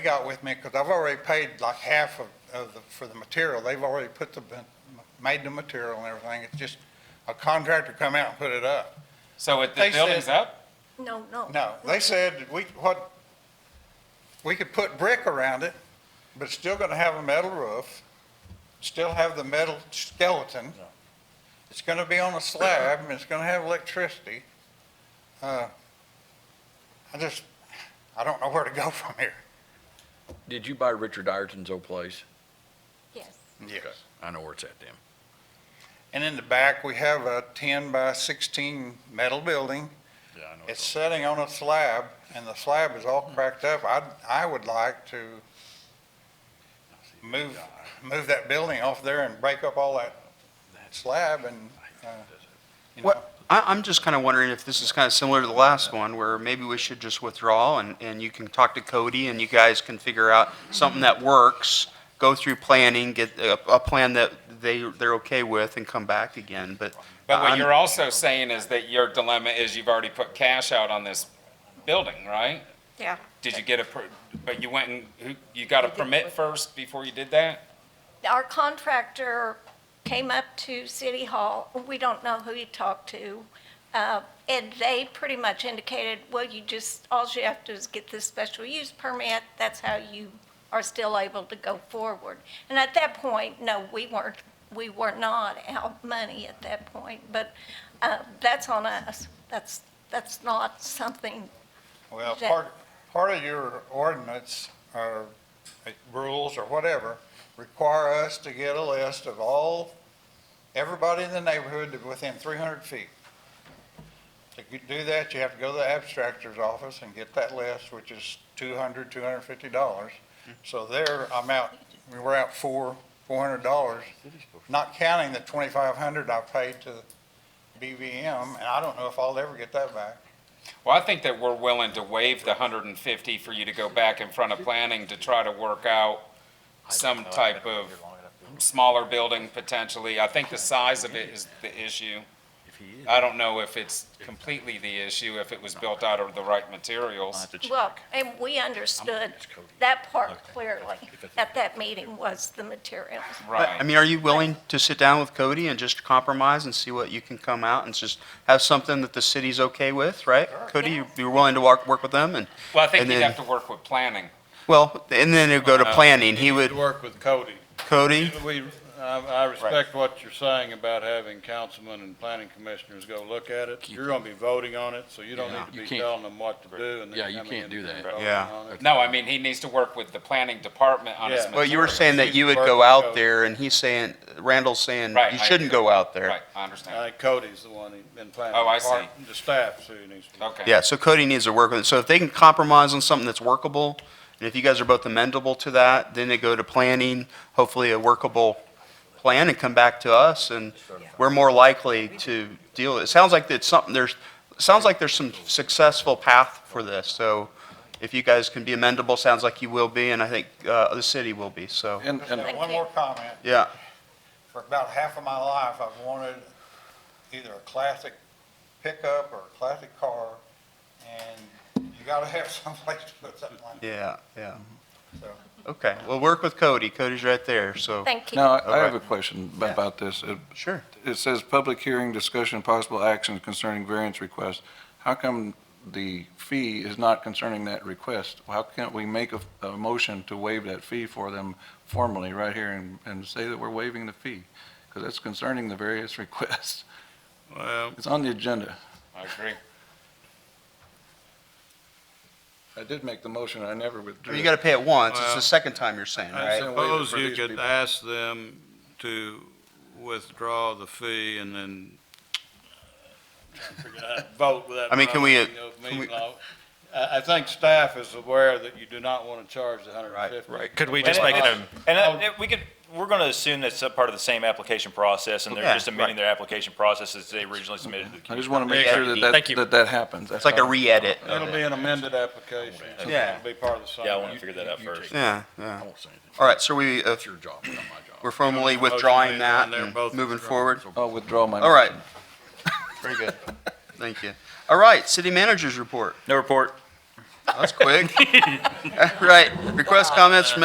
got with me, because I've already paid like half of, of the, for the material. They've already put the, made the material and everything. It's just a contractor come out and put it up. So it- the They said- building's up? No, no. No, they said that we, what, we could put brick around it, but it's still gonna have a metal roof, still have the metal skeleton. It's gonna be on a slab, and it's gonna have electricity. Uh, I just, I don't know where to go from here. Did you buy Richard Ireton's old place? Yes. Okay, I know where it's at then. And in the back, we have a ten by sixteen metal building. Yeah, I know. It's sitting on a slab, and the slab is all cracked up. I, I would like to move, move that building off there and break up all that slab and, uh, you know. What- I, I'm just kind of wondering if this is kind of similar to the last one, where maybe we should just withdraw and, and you can talk to Cody and you guys can figure out something that works, go through planning, get a, a plan that they, they're okay with and come back again, but. But what I'm- you're also saying is that your dilemma is you've already put cash out on this building, right? Yeah. Did you get a, per- but you went and, who- you got a permit first before you did that? Our contractor came up to City Hall. We don't know who he talked to. Uh, And they pretty much indicated, well, you just, all you have to do is get this special use permit. That's how you are still able to go forward. And at that point, no, we weren't, we were not out money at that point. But uh, that's on us. That's, that's not something, Well, that- part, part of your ordinance or uh, rules or whatever require us to get a list of all, everybody in the neighborhood that within three hundred feet. To g- do that, you have to go to the abstractor's office and get that list, which is two hundred, two hundred and fifty dollars. So there, I'm out, we were out four, four hundred dollars, not counting the twenty-five hundred I paid to BVM, and I don't know if I'll ever get that back. Well, I think that we're willing to waive the hundred and fifty for you to go back in front of planning to try to work out some type of smaller building potentially. I think the size of it is the issue. I don't know if it's completely the issue, if it was built out of the right materials. well, and we understood that part clearly at that meeting was the materials. But, Right. I mean, are you willing to sit down with Cody and just compromise and see what you can come out and just have something that the city's okay with, right? Cody, you- you're willing to work, work with them and, Well, I think and you'd then- have to work with planning. well, and then it'd go to planning. He would, Uh, Work with Cody. Cody, We, I, I respect what you're saying about having councilmen and planning commissioners go look at it. You're gonna be voting on it, so you don't Yeah. need to You be can't- telling them what to do and Yeah, then you coming can't in do and that. voting Yeah. on it. No, I mean, he needs to work with the planning department on his Yeah. well, you were materials. saying that you would go out there and he's saying, Randall's saying, Right, you I- shouldn't go out there. Right, I I understand. think Cody's the one who's been planning. Oh, I see. part- The staff, so he needs to. Okay. Uh, Yeah, so Cody needs to work with it. So if they can compromise on something that's workable, and if you guys are both amendable to that, then they go to planning, hopefully a workable plan, and come back to us, and we're more likely to deal. It sounds like it's something, there's, it sounds like there's some successful path for this, so if you guys can be amendable, sounds like you will be, and I think, uh, the city will be, so, And, and Thank One you. more comment. yeah. For about half of my life, I've wanted either a classic pickup or a classic car, and you gotta have someplace to put something like that. Yeah, yeah. So- Okay, well, work with Cody. Cody's right there, so. Thank you. Now, I- I Okay. have a question ab- Yeah. about this. It- Sure. It says, "Public hearing, discussion, possible action concerning variance request." How come the fee is not concerning that request? How can't we make a, a motion to waive that fee for them formally right here and, and say that we're waiving the fee? Because that's concerning the various requests. Well, It's on the agenda. I agree. I did make the motion, I never withdrew. You it. gotta pay it once. It's Well, the second time you're saying, I right? understand waiver suppose for you these could people. ask them to withdraw the fee and then vote without. I mean, can we, uh, violating the open can we- meeting law. I, I think staff is aware that you do not want to charge the hundred and fifty. Could we just And make it- it a? And uh, we could, we're going to assume that's a part of the same application process, and Yeah, they're just amending their application process as they originally submitted to the I community. just want to make sure that Thank that, you. that that happens. It's like a re-edit. It'll be an amended application. so Yeah. It'll be part of the same. Yeah, I want to figure that out first. Yeah, yeah. won't say anything. All right, so we, uh, It's your job, not my job. we're formally Motion withdrawing made, that and they're and both moving withdrawn. forward. I'll withdraw my. All right. Very good. Thank you. All right, city managers report. No report. That's quick. Right, request comments from